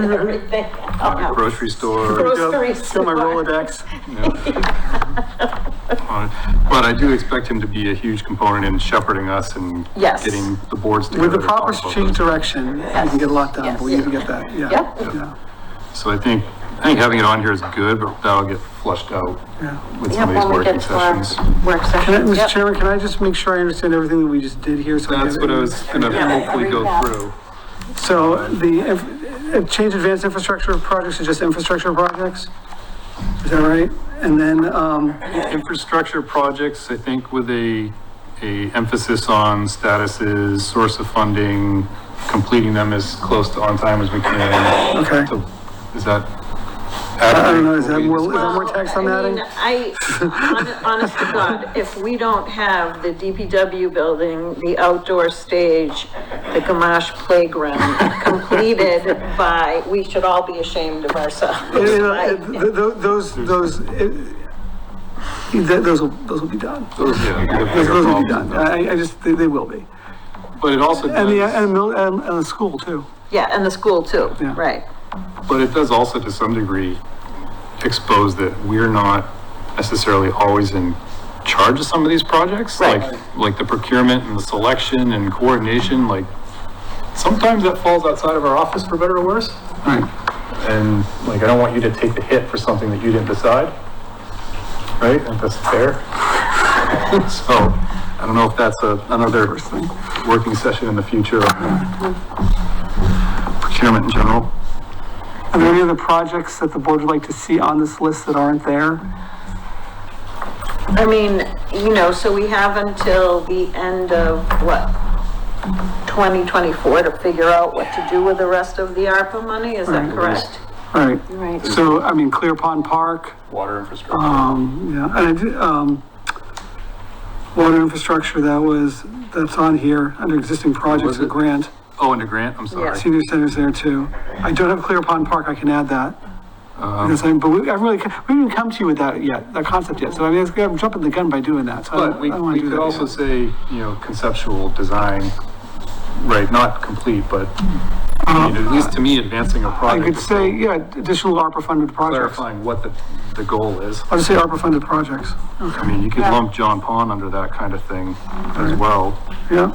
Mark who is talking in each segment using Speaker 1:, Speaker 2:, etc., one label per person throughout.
Speaker 1: Mm-hmm.
Speaker 2: everything.
Speaker 3: Oh.
Speaker 4: grocery store.
Speaker 2: Grocery
Speaker 4: Show my
Speaker 2: store.
Speaker 4: Rolodex. Uh, But I do expect him to be a huge component in shepherding us and
Speaker 2: Yes.
Speaker 4: getting the boards together.
Speaker 1: With the
Speaker 4: to talk
Speaker 1: proper
Speaker 4: about
Speaker 1: strategic direction, you can get a lot done,
Speaker 2: Yes.
Speaker 1: but we need to get that, yeah.
Speaker 2: Yep.
Speaker 1: Yeah,
Speaker 4: this. So I think, I think having it on here is good, but that'll get flushed out
Speaker 1: yeah.
Speaker 4: with
Speaker 2: Yeah,
Speaker 4: some of these
Speaker 2: when we
Speaker 4: working
Speaker 2: get to our
Speaker 4: sessions.
Speaker 2: work
Speaker 1: Can I,
Speaker 2: sessions.
Speaker 1: Mr.
Speaker 2: Yep.
Speaker 1: Chairman, can I just make sure I understand everything that we just did here? so
Speaker 4: That's
Speaker 1: get
Speaker 4: what I
Speaker 1: it?
Speaker 4: was gonna hopefully go through.
Speaker 1: So the, inf- uh, change advanced infrastructure projects to just infrastructure projects? Is that right? And then, um,
Speaker 4: Infrastructure projects, I think with a, a emphasis on statuses, source of funding, completing them as close to on time as we can.
Speaker 1: Okay.
Speaker 4: So, Is that?
Speaker 1: I don't know, is that more, is
Speaker 4: Well,
Speaker 1: that more text on
Speaker 3: Well,
Speaker 1: that?
Speaker 3: I mean,
Speaker 1: Ing?
Speaker 3: I, hon- honest to God, if we don't have the DPW building, the outdoor stage, the Gamache playground completed by, we should all be ashamed of ourselves.
Speaker 1: You know,
Speaker 3: right?
Speaker 1: it- th- th- Those, those, it- th- those will, those will be done.
Speaker 4: yeah, the
Speaker 1: Those
Speaker 4: bigger
Speaker 1: those will be
Speaker 4: problem.
Speaker 1: done. I, I just, they, they will be.
Speaker 4: But it also
Speaker 1: And the,
Speaker 4: does,
Speaker 1: and, mil- and, and the school too.
Speaker 3: Yeah, and the school too,
Speaker 1: Yeah.
Speaker 3: right.
Speaker 4: but it does also to some degree expose that we're not necessarily always in charge of some of these projects.
Speaker 3: Right.
Speaker 4: Like, like the procurement and the selection and coordination, like sometimes that falls outside of our office for better or worse. And like, I don't want you to take the hit for something that you didn't decide. Right? And that's fair. So I don't know if that's a, another working session in the future. on uh, Procurement in general.
Speaker 1: Are there any other projects that the board would like to see on this list that aren't there?
Speaker 3: I mean, you know, so we have until the end of what? 2024 to figure out what to do with the rest of the ARPA money, is that correct?
Speaker 1: All right,
Speaker 2: Right.
Speaker 1: so, I mean, Clear Pond Park,
Speaker 4: Water infrastructure.
Speaker 1: um, yeah, and I did, um, water infrastructure, that was, that's on here, under existing projects
Speaker 4: Was
Speaker 1: and
Speaker 4: it?
Speaker 1: grant.
Speaker 4: Oh, and a grant, I'm sorry.
Speaker 3: Yes.
Speaker 1: Senior Center's there too. I don't have Clear Pond Park, I can add that.
Speaker 4: Uh-huh.
Speaker 1: Because I, but we, I really, ca- we haven't come to you with that yet, that concept yet, so I mean, it's- I'm jumping the gun by doing that, so I
Speaker 4: But
Speaker 1: don't,
Speaker 4: we,
Speaker 1: I don't wanna
Speaker 4: we
Speaker 1: do
Speaker 4: could
Speaker 1: that.
Speaker 4: also
Speaker 1: yet.
Speaker 4: say, you know, conceptual design, right, not complete, but I mean, at least to me, advancing a
Speaker 1: I
Speaker 4: project.
Speaker 1: could
Speaker 4: is
Speaker 1: say, yeah, additional ARPA funded projects.
Speaker 4: Clarifying what the, the goal is.
Speaker 1: I'll just say ARPA funded projects,
Speaker 4: I mean, you could lump John Pond under that kind of thing as well,
Speaker 1: yeah.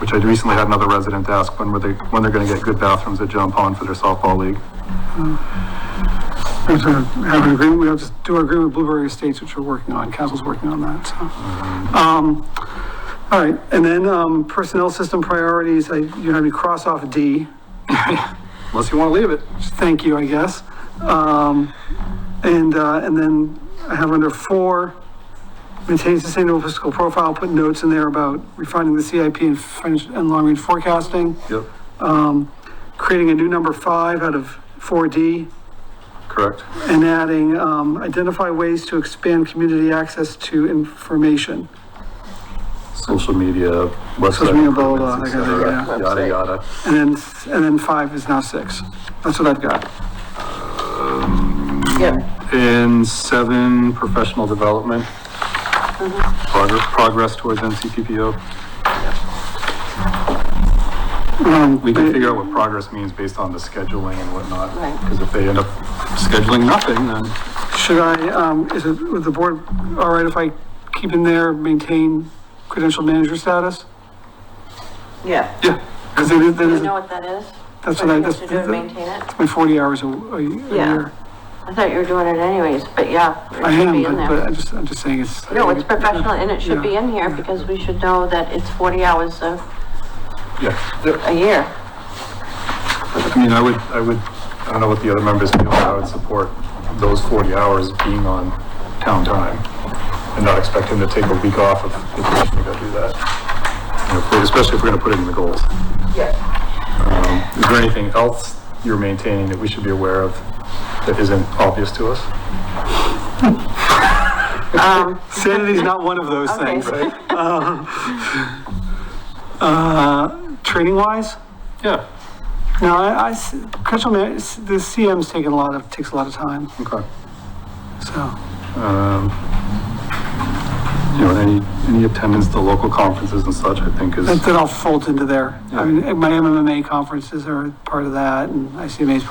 Speaker 4: which I recently had another resident ask when were they, when they're gonna get good bathrooms at John Pond for their softball league.
Speaker 1: We have to have an agreement, we have to do our agreement with Blueberry Estates, which we're working on, council's working on that, so. Um, all right, and then, um, personnel system priorities, I, you had me cross off D,
Speaker 4: Unless you wanna leave it.
Speaker 1: which thank you, I guess. Um, and, uh, and then I have under four, maintain sustainable fiscal profile, put notes in there about refining the CIP and financial, and long-range forecasting,
Speaker 4: Yep.
Speaker 1: creating a new number five out of four D,
Speaker 4: Correct.
Speaker 1: and adding, um, identify ways to expand community access to information.
Speaker 4: Social media,
Speaker 1: Social
Speaker 4: website
Speaker 1: media, blah,
Speaker 4: improvements, et
Speaker 1: blah, blah, like I said,
Speaker 4: cetera, yada, yada.
Speaker 1: And then, and then five is now six. That's what I've got.
Speaker 3: Yeah.
Speaker 4: And seven, professional development. Progress, progress towards NCPPO.
Speaker 1: Um,
Speaker 4: We can
Speaker 1: but-
Speaker 4: figure out what progress means based on the scheduling and whatnot.
Speaker 2: Right.
Speaker 4: Because if they end up scheduling nothing, then
Speaker 1: Should I, um, is it, would the board, all right if I keep in there, maintain credential manager status?
Speaker 3: Yeah,
Speaker 1: Yeah. Because it is, that
Speaker 2: Do
Speaker 1: is,
Speaker 2: you know what that is?
Speaker 1: that's what
Speaker 2: What
Speaker 1: I,
Speaker 2: you have
Speaker 1: that's,
Speaker 2: to do to
Speaker 1: that's
Speaker 2: maintain it?
Speaker 1: my forty hours a, a year.
Speaker 2: I thought you were doing it anyways, but yeah,
Speaker 1: I
Speaker 2: it should
Speaker 1: am,
Speaker 2: be in
Speaker 1: but, but
Speaker 2: there.
Speaker 1: I'm just, I'm just saying it's.
Speaker 2: No, it's professional and it should be in here
Speaker 1: Yeah.
Speaker 2: because we should know that it's 40 hours a,
Speaker 4: yeah. Yep.
Speaker 2: a year.
Speaker 4: I mean, I would, I would, I don't know what the other members feel, but I would support those 40 hours being on town time and not expect him to take a week off of vacation to go do that. You know, Especially if we're going to put it in the goals. Um,
Speaker 3: yeah.
Speaker 4: Is there anything else you're maintaining that we should be aware of that isn't obvious to us?
Speaker 1: Sanity's not one of those
Speaker 2: Okay.
Speaker 1: things. Uh, training wise?
Speaker 4: Yeah,
Speaker 1: No, I, I s- credential man, s- the CM's taking a lot of, takes a lot of time,
Speaker 4: okay.
Speaker 1: so.
Speaker 4: Um, You know, any, any attendance to local conferences and such, I think is.
Speaker 1: That that all folds into there. I mean, my MMA conferences are part of that, and ICMA's